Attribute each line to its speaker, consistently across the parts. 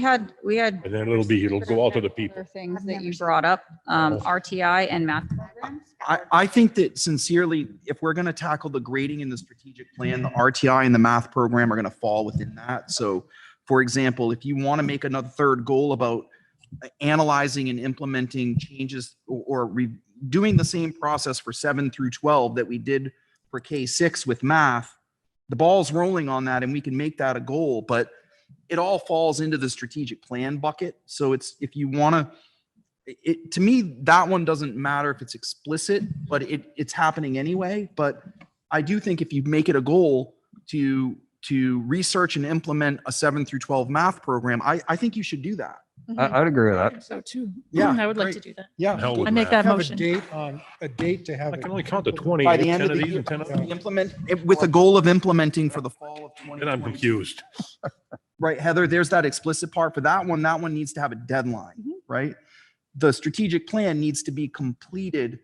Speaker 1: We had, we had
Speaker 2: And then it'll be, it'll go out to the people.
Speaker 3: Other Things
Speaker 1: I've
Speaker 3: that
Speaker 1: never
Speaker 3: you
Speaker 1: seen
Speaker 3: brought up, um,
Speaker 2: Oh.
Speaker 3: RTI and math programs.
Speaker 4: I, I think that sincerely, if we're going to tackle the grading in the strategic plan, the RTI and the math program are going to fall within that. So for example, if you want to make another third goal about uh, analyzing and implementing changes or- or re- doing the same process for seven through 12 that we did for K six with math, the ball's rolling on that and we can make that a goal, but it all falls into the strategic plan bucket. So it's, if you want to it- it to me that one doesn't matter if it's explicit but it it's happening anyway but i do think if you make it a goal to to research and implement a 7 through 12 math program i i think you should do that
Speaker 5: I, I'd agree with that.
Speaker 6: So too.
Speaker 4: Yeah,
Speaker 6: I would like
Speaker 4: great.
Speaker 6: to do that.
Speaker 4: yeah
Speaker 2: Hell with
Speaker 6: I make
Speaker 2: that.
Speaker 6: that
Speaker 7: have a
Speaker 6: motion.
Speaker 7: date on, a date to have.
Speaker 2: I
Speaker 7: it
Speaker 2: can only count to 20.
Speaker 7: implemented.
Speaker 4: by
Speaker 2: Ten
Speaker 4: the end of
Speaker 2: of
Speaker 4: the
Speaker 2: these
Speaker 4: year
Speaker 2: and 10 of
Speaker 7: yeah.
Speaker 2: those.
Speaker 4: implement it with a goal of implementing for the fall of 20
Speaker 2: Then I'm confused.
Speaker 4: right heather there's that explicit part for that one that one needs to have a deadline
Speaker 1: Mm-hmm.
Speaker 4: right the strategic plan needs to be completed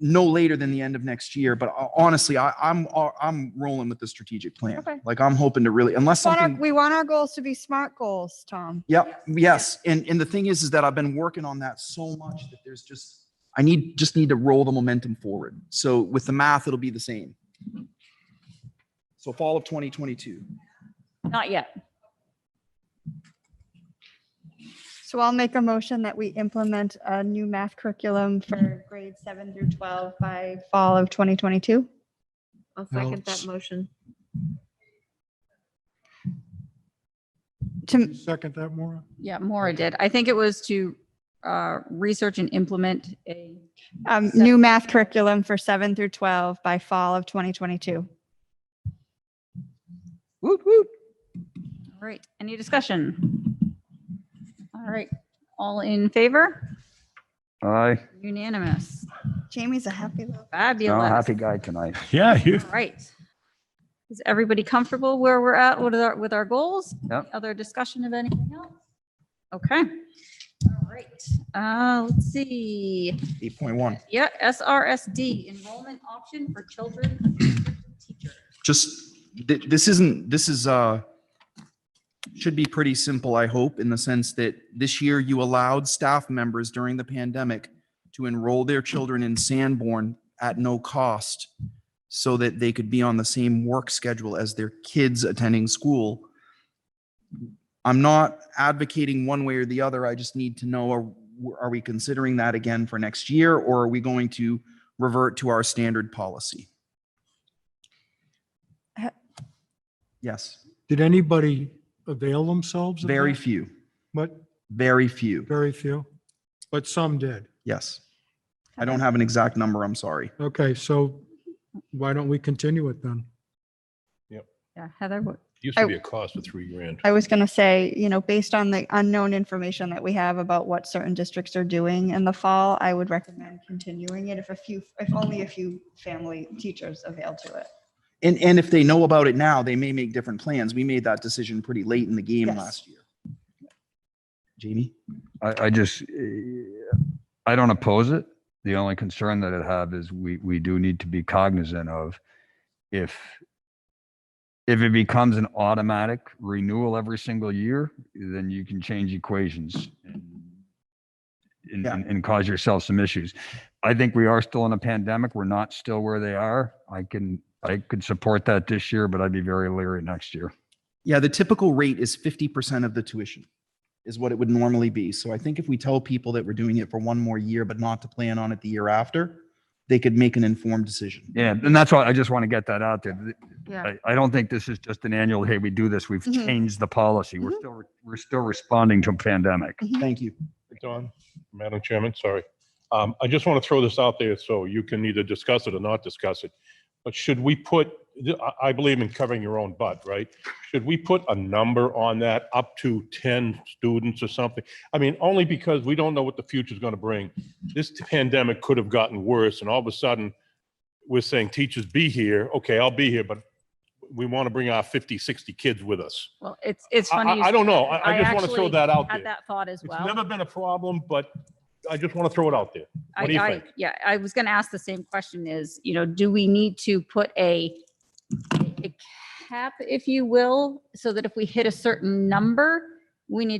Speaker 4: no later than the end of next year but ho- honestly I, i'm uh, i'm rolling with the strategic plan
Speaker 1: Okay.
Speaker 4: like i'm hoping to really unless
Speaker 1: want our-
Speaker 4: something
Speaker 1: We want our goals to be SMART goals, Tom.
Speaker 4: Yep, yes. And, and the thing is, is that I've been working on that so much that there's just, I need, just need to roll the momentum forward. So with the math, it'll be the same. So fall of 2022.
Speaker 3: Not yet.
Speaker 1: So I'll make a motion that we implement a new math curriculum for grades seven through 12 by fall of 2022.
Speaker 8: I'll
Speaker 7: Well,
Speaker 8: second that
Speaker 7: s-
Speaker 8: motion.
Speaker 1: To,
Speaker 7: Second that, Maura?
Speaker 3: Yeah, Maura did. I think it was to, uh, research and implement a,
Speaker 1: um, new math curriculum for seven through 12 by fall of 2022.
Speaker 4: Woot, woot.
Speaker 3: all right, any discussion? All right, all in favor?
Speaker 5: Aye.
Speaker 3: Unanimous.
Speaker 1: Jamie's a happy little.
Speaker 5: I'm a
Speaker 3: Fabulous.
Speaker 5: happy guy tonight.
Speaker 2: Yeah, you,
Speaker 3: All right. Is everybody comfortable where we're at with our, with our goals?
Speaker 5: Yep.
Speaker 3: Any Other discussion of anything else? Okay. All right, uh, let's see.
Speaker 4: 8.1.
Speaker 3: Yeah, SRSD, enrollment option for children of restricted teachers.
Speaker 4: Just, th- this isn't, this is, uh, should be pretty simple, I hope, in the sense that this year you allowed staff members during the pandemic to enroll their children in Sanborn at no cost so that they could be on the same work schedule as their kids attending school. I'm not advocating one way or the other. I just need to know, are, are we considering that again for next year or are we going to revert to our standard policy?
Speaker 1: Ha-
Speaker 4: Yes,
Speaker 7: Did anybody avail themselves? of
Speaker 4: very
Speaker 7: that?
Speaker 4: few,
Speaker 7: But
Speaker 4: very few.
Speaker 7: very few, but some did.
Speaker 4: Yes. I don't have an exact number, I'm sorry.
Speaker 7: Okay, so why don't we continue it then?
Speaker 3: Yeah, Heather, what-
Speaker 2: used to be a cost of three grand.
Speaker 1: I was going to say, you know, based on the unknown information that we have about what certain districts are doing in the fall, I would recommend continuing it if a few, if only a few family teachers avail to it.
Speaker 4: And, and if they know about it now, they may make different plans. We made that decision pretty late in the game
Speaker 1: Yes.
Speaker 4: last year. Jamie?
Speaker 5: I, I just, eh, I don't oppose it. The only concern that I have is we, we do need to be cognizant of if, if it becomes an automatic renewal every single year, then you can change equations and- and,
Speaker 4: Yeah.
Speaker 5: and, and cause yourself some issues. I think we are still in a pandemic. We're not still where they are. I can, I could support that this year, but I'd be very leery next year.
Speaker 4: Yeah, the typical rate is 50% of the tuition is what it would normally be. So I think if we tell people that we're doing it for one more year, but not to plan on it the year after, they could make an informed decision.
Speaker 5: Yeah, and that's why I just want to get that out there. Th-
Speaker 3: Yeah. Mm-hmm.
Speaker 5: I, I don't think this is just an annual, hey, we do this, we've
Speaker 1: Mhm.
Speaker 5: changed the policy. We're still, re- we're still responding to a pandemic.
Speaker 4: Thank you.
Speaker 2: Don, Madam Chairman, sorry. Um, I just want to throw this out there so you can either discuss it or not discuss it. But should we put, I- I believe in covering your own butt, right? Should we put a number on that, up to 10 students or something? I mean, only because we don't know what the future's going to bring. This pandemic could have gotten worse and all of a sudden we're saying, teachers, be here. Okay, I'll be here, but we want to bring our 50, 60 kids with us.
Speaker 3: well, it's, it's
Speaker 2: I-
Speaker 3: funny. you
Speaker 2: I, I don't
Speaker 3: say
Speaker 2: know.
Speaker 3: that.
Speaker 2: I, I just want to throw
Speaker 3: actually
Speaker 2: that out there.
Speaker 3: Had that thought as
Speaker 2: It's
Speaker 3: well.
Speaker 2: never been a problem, but I just want to throw it out there.
Speaker 3: I-
Speaker 2: What do you
Speaker 3: I-
Speaker 2: think?
Speaker 3: Yeah, I was going to ask the same question is, you know, do we need to put a, a cap, if you will, so that if we hit a certain number, we need